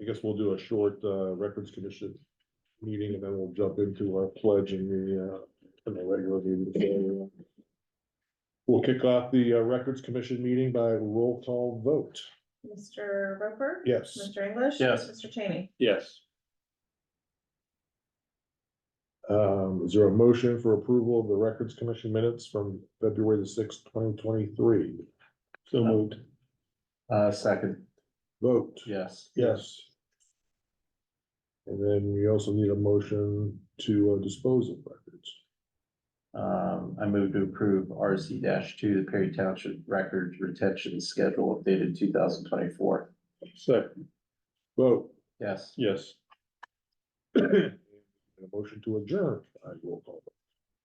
I guess we'll do a short uh records commission meeting and then we'll jump into our pledge and the uh and the regular meeting. We'll kick off the uh, Records Commission meeting by roll call vote. Mr. Roper? Yes. Mr. English? Yes. Mr. Cheney? Yes. Um, is there a motion for approval of the Records Commission minutes from February the sixth, twenty twenty-three? So moved. Uh, second, Vote. yes. Yes. And then we also need a motion to uh, dispose of records. Um, I move to approve RC two, the Perry Township Records Retention Schedule updated two thousand twenty-four. Second. Vote. Yes. Yes. A motion to adjourn, I will call.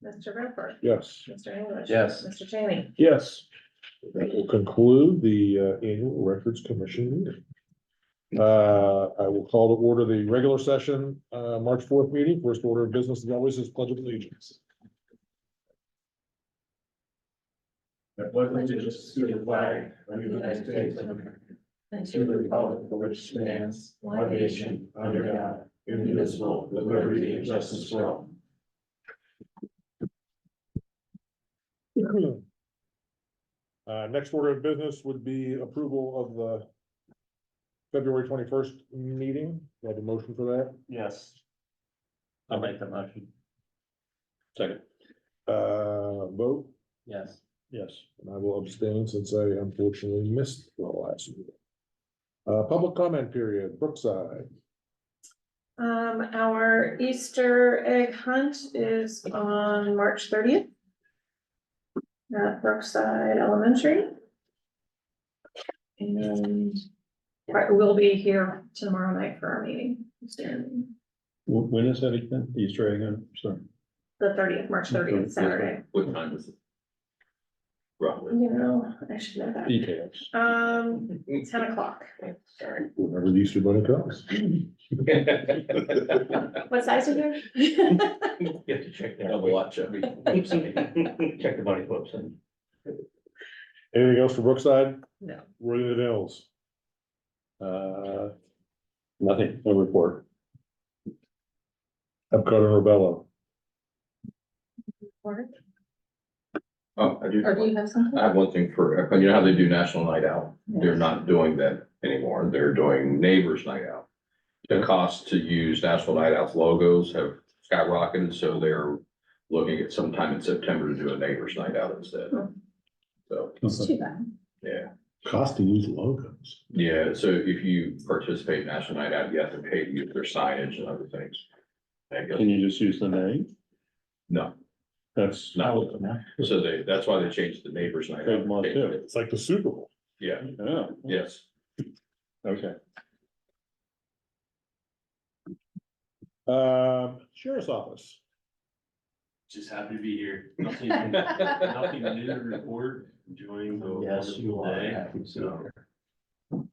Mr. Roper? Yes. Mr. English? Yes. Mr. Cheney? Yes. That will conclude the uh, annual records commission meeting. Uh, I will call to order the regular session, uh, March fourth meeting. First order of business as always is pledge of allegiance. wasn't just to the flag of the United States of America, and to the republic for which stands, one nation, under God, indivisible, with liberty and justice for all. Uh, next order of business would be approval of the February twenty-first meeting. Do I have a motion for that? Yes. I'll make the motion. Second. Uh, vote? Yes. Yes. And I will abstain since I unfortunately missed the last meeting. Uh, public comment period, Brookside. Um, our Easter egg hunt is on March thirtieth. At Brookside Elementary. And right, we'll be here tomorrow night for our meeting, the When is that again? Easter egg, I'm sorry. thirtieth, March thirtieth, Saturday. What time is it? Roughly. You know, I should know E- that. Details. Um, ten o'clock. Sorry. Whenever the Easter Bunny comes. What size are you? You have to check that. Double watch every. Check the body clips and. Anything else for Brookside? No. Worthy of the Hills. Uh, nothing, no report. Epcot and Rebello. Or Oh, I do, or do you have something? I have one thing for, you know how they do National Night Out? They're not doing that anymore. They're doing Neighbors Night Out. The cost to use National Night Out's logos have skyrocketed, so they're looking at sometime in September to do a Neighbors Night Out instead. So, It's too bad. yeah. Cost to use logos. Yeah, so if you participate in National Night Out, you have to pay to use their signage and other things. I guess, you just use the name? no, That's not what so they, that's why they changed the neighbors night. Good one, too. It's like the Super Bowl. Yeah, Yeah. yes. Okay. Um, Sheriff's Office. Just happy to be here. Nothing, nothing new to report, enjoying the Yes, you wonderful are. day. happy to be So here.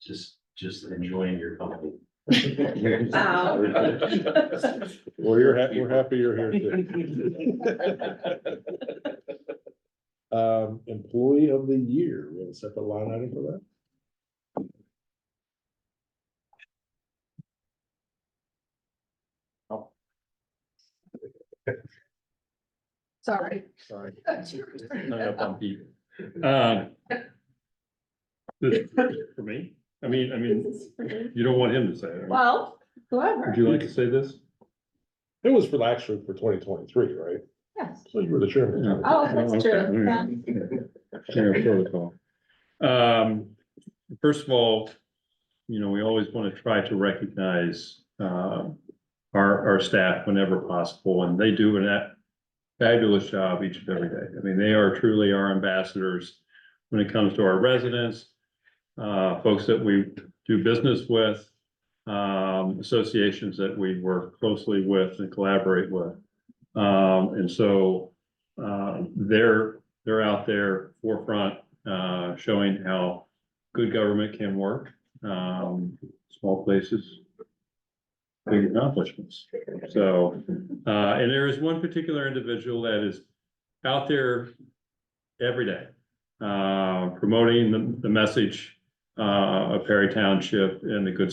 just, just enjoying your company. Well, you're happy, we're happy you're here too. Um, Employee of the Year, we have a separate line item for that? Sorry. Sorry. Hung up on people. Um, This is for me, I mean, I mean, you don't want him to say it. right? Well, Would whoever, you like to say this? It was for actually for twenty twenty-three, right? yes. So you were the chairman. Yeah. Oh, that's true. Yeah. General protocol. Um, first of all, you know, we always want to try to recognize, uh, our, our staff whenever possible, and they do a fabulous job each and every day. I mean, they are truly our ambassadors when it comes to our residents, uh, folks that we do business with, um, associations that we work closely with and collaborate with. Um, and so, uh, they're, they're out there forefront, uh, showing how good government can work. Um, small places, big accomplishments. So, uh, and there is one particular individual that is out there every day, uh, promoting the, the message, uh, of Perry Township and the good